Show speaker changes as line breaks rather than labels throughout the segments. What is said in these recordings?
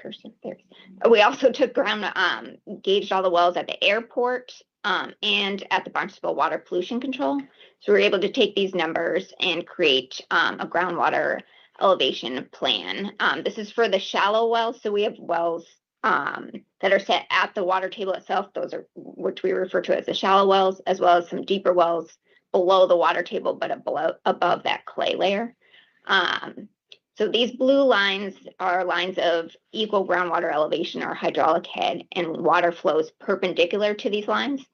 person there. We also took ground, um, gauged all the wells at the airport, um, and at the Barnstable Water Pollution Control. So we were able to take these numbers and create, um, a groundwater elevation plan. Um, this is for the shallow wells, so we have wells, um, that are set at the water table itself. Those are, which we refer to as the shallow wells, as well as some deeper wells below the water table, but below, above that clay layer. Um, so these blue lines are lines of equal groundwater elevation or hydraulic head, and water flows perpendicular to these lines.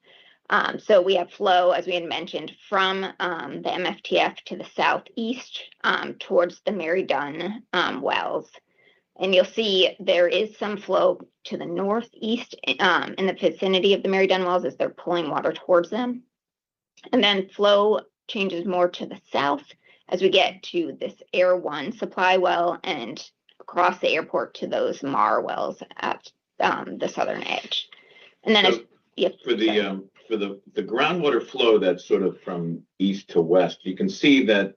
Um, so we have flow, as we had mentioned, from um, the MFTF to the southeast um, towards the Mary Dunn um, wells. And you'll see there is some flow to the northeast um, in the vicinity of the Mary Dunn wells as they're pulling water towards them. And then flow changes more to the south as we get to this Air One supply well and across the airport to those Mar wells at um, the southern edge. And then, as-
So
yep,
For the, um, for the, the groundwater flow that's sort of from east to west, you can see that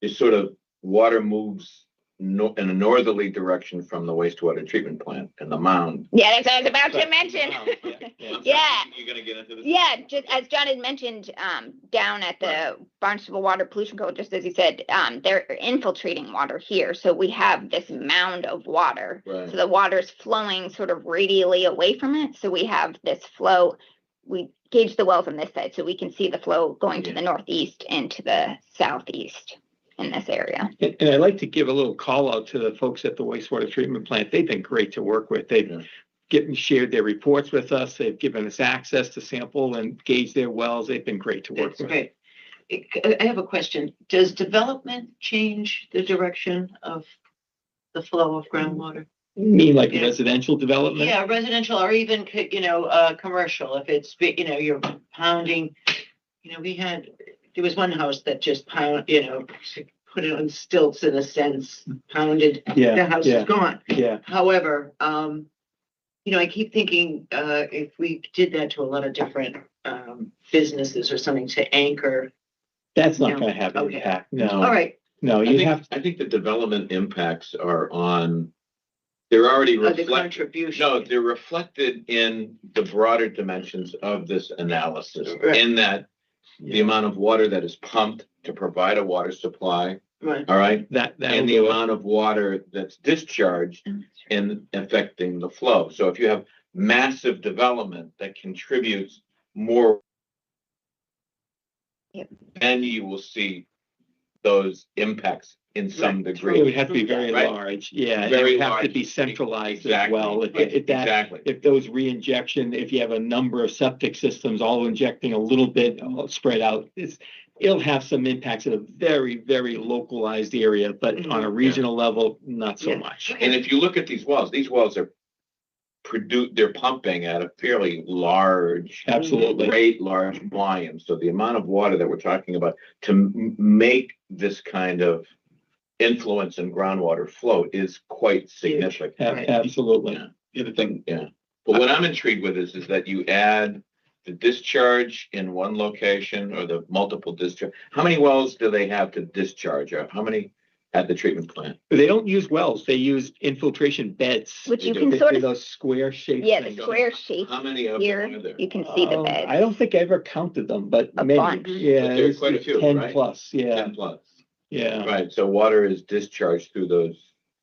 it's sort of water moves no, in a northerly direction from the wastewater treatment plant and the mound.
yeah, that's what I was about to
Sorry,
mention.
mound, yeah. I'm sorry,
Yeah.
You're gonna get into this?
Yeah, just as John had mentioned, um, down at the Barnstable Water Pollution Control, just as he said, um, they're infiltrating water here, so we have this mound of water. So
Right,
the water's flowing sort of radially away from it, so we have this flow. We gauge the well from this side, so we can see the flow going to
Yeah.
the northeast and to the southeast in this area.
And, and I'd like to give a little call out to the folks at the wastewater treatment plant. They've been great to work with.
Yeah.
They've given, shared their reports with us. They've given us access to sample and gauge their wells. They've been great to work
That's
with.
great. I I have a question. Does development change the direction of the flow of groundwater?
You mean like
Yeah.
residential development?
Yeah, residential or even, co- you know, uh, commercial, if it's, bi- you know, you're pounding, you know, we had, there was one house that just pound, you know, put it on stilts in a sense, pounded, the
Yeah,
house is
yeah,
gone.
yeah.
However, um, you know, I keep thinking, uh, if we did that to a lot of different, um, businesses or something to anchor.
That's not
No.
gonna have an
Okay.
impact. No,
All right,
no,
I
you have,
think, I think the development impacts are on, they're already
uh, the
reflected.
contribution.
No, they're reflected in the broader dimensions of this analysis,
Right.
in that the amount of water that is pumped to provide a water supply,
Right,
all right?
that, that'll
And the
do it.
amount of water that's discharged and affecting the flow. So if you have massive development that contributes more,
Yep.
then you will see those impacts in some
It would
degree.
have to be very
Right.
large. Yeah, and it
Very
would have to
large.
be centralized as
Exactly.
well. If, if that,
Exactly.
if those re-injection, if you have a number of septic systems all injecting a little bit all spread out, it's, it'll have some impacts in a very, very localized area, but
Mm-hmm.
on a regional level, not so
Yeah.
much.
And if you look at these wells, these wells are produ, they're pumping at a fairly large,
Absolutely.
great large volume. So the amount of water that we're talking about to m- make this kind of influence in groundwater flow is quite
A-
significant.
Right.
Absolutely.
Yeah. The other thing, yeah. But what I'm intrigued with is, is that you add the discharge in one location or the multiple discharge. How many wells do they have to discharge? Or how many at the treatment plant?
They don't use wells, they use infiltration beds.
Which
They
you
do.
They
can
do
sort of,
Those square shaped
yeah, the
things.
square shape
How many of
here,
them are there?
you can see the
Um,
bed.
I don't think I ever counted them, but
A
many,
bunch.
yeah.
But there are
there's-
quite a
there's
few,
Ten
right?
plus, yeah,
Ten plus.
yeah.
Right, so water is discharged through those.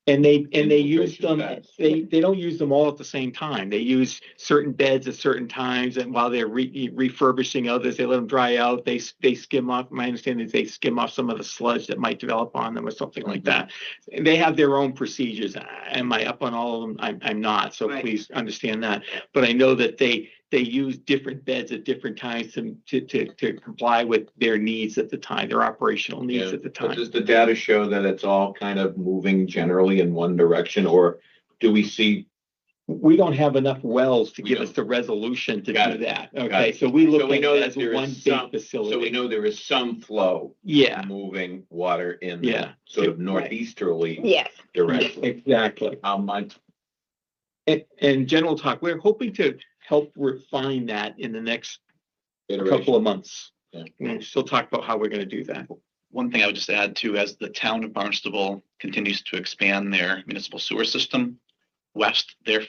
And they, and they use
Infiltration
them,
beds.
they, they don't use them all at the same time. They use certain beds at certain times and while they're re- e, refurbishing others, they let them dry out. They, s- they skim off, my understanding is they skim off some of the sludge that might develop on them or something like
Mm-hmm.
that. They have their own procedures. Am I up on all of them? I'm, I'm not, so
Right.
please understand that. But I know that they, they use different beds at different times to, to, to, to comply with their needs at the time, their operational needs
Yeah,
at the
But
time.
does the data show that it's all kind of moving generally in one direction, or do we see?
We don't have enough wells to
We
give
don't.
us the resolution to
Got
do
it.
that,
Got
okay,
it.
so we
So
look
we
at
know
it
that
as
there is
one
some-
big
So we
facility.
know there is some flow
Yeah,
moving water in the
Yeah.
sort of northeasterly
Yes,
direction.
exactly.
How much,
And, and general talk, we're hoping to help refine that in the next
iteration?
couple of months.
Yeah.
We'll still talk about how we're gonna do that.
One thing I would just add too, as the town of Barnstable continues to expand their municipal sewer system,
west, they're